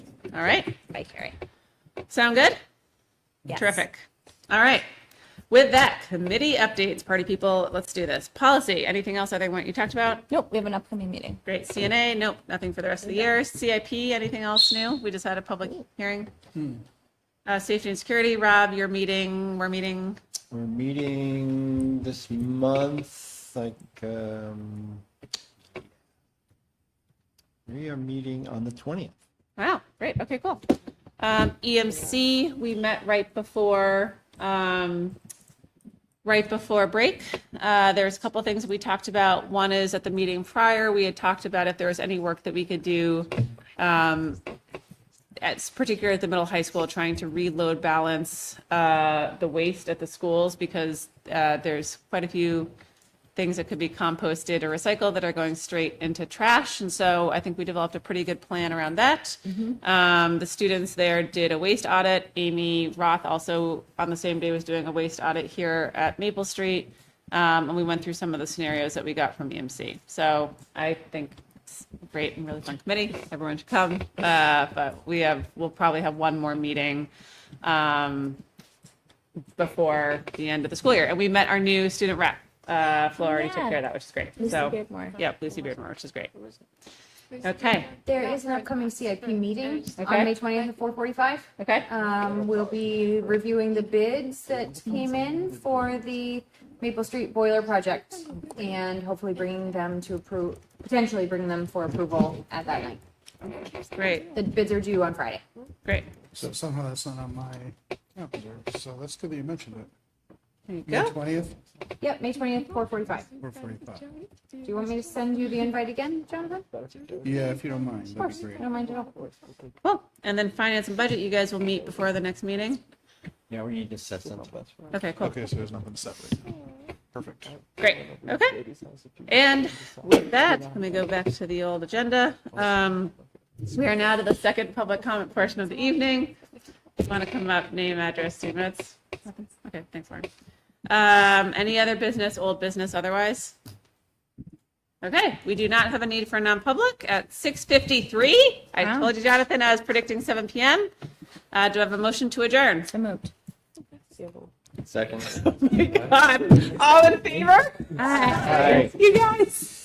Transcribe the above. All right. Bye, Carrie. Sound good? Yes. Terrific. All right. With that, committee updates, party people, let's do this. Policy, anything else other than what you talked about? Nope, we have an upcoming meeting. Great. CNA, nope, nothing for the rest of the year. CIP, anything else new? We just had a public hearing. Uh, safety and security, Rob, you're meeting, we're meeting. We're meeting this month, like, um, we are meeting on the twentieth. Wow, great. Okay, cool. Um, EMC, we met right before, um, right before break. Uh, there's a couple of things we talked about. One is at the meeting prior, we had talked about if there was any work that we could do, um, at, particularly at the middle high school, trying to reload balance, uh, the waste at the schools because, uh, there's quite a few things that could be composted or recycled that are going straight into trash. And so I think we developed a pretty good plan around that. Um, the students there did a waste audit. Amy Roth also on the same day was doing a waste audit here at Maple Street. Um, and we went through some of the scenarios that we got from EMC. So I think it's great and really fun committee. Everyone should come. Uh, but we have, we'll probably have one more meeting. Um, before the end of the school year. And we met our new student rep. Uh, Flo already took Yeah. care of that, which is great. Lucy so, Beardmore. yeah, Lucy Beardmore, which is great. Okay. There is an upcoming CIP meeting Okay. on May twentieth at four forty-five. Okay. Um, we'll be reviewing the bids that came in for the Maple Street Boiler Project and hopefully bringing them to approve, potentially bring them for approval at that night. Great. The bids are due on Friday. Great. So somehow that's not on my calendar, so that's good that you mentioned it. There you May go. twentieth Yep, May twentieth, four forty-five. or forty-five? Do you want me to send you the invite again, Jonathan? Of Yeah, if you don't mind, that'd course, be great. don't mind at all. Cool. And then finance and budget, you guys will meet before the next meeting. Yeah, we need to set something up. Okay, cool. Okay, so there's nothing separate. Perfect. Great. Okay. And with that, let me go back to the old agenda. Um, we are now to the second public comment portion of the evening. Want to come up, name, address, two minutes? Okay, thanks, Lauren. Um, any other business, old business otherwise? Okay, we do not have a need for a non-public at 6:53. I told you, Jonathan, I was predicting 7 PM. Uh, do I have a motion to adjourn? So moved. Second. God, all in favor? Aye. All right. You guys.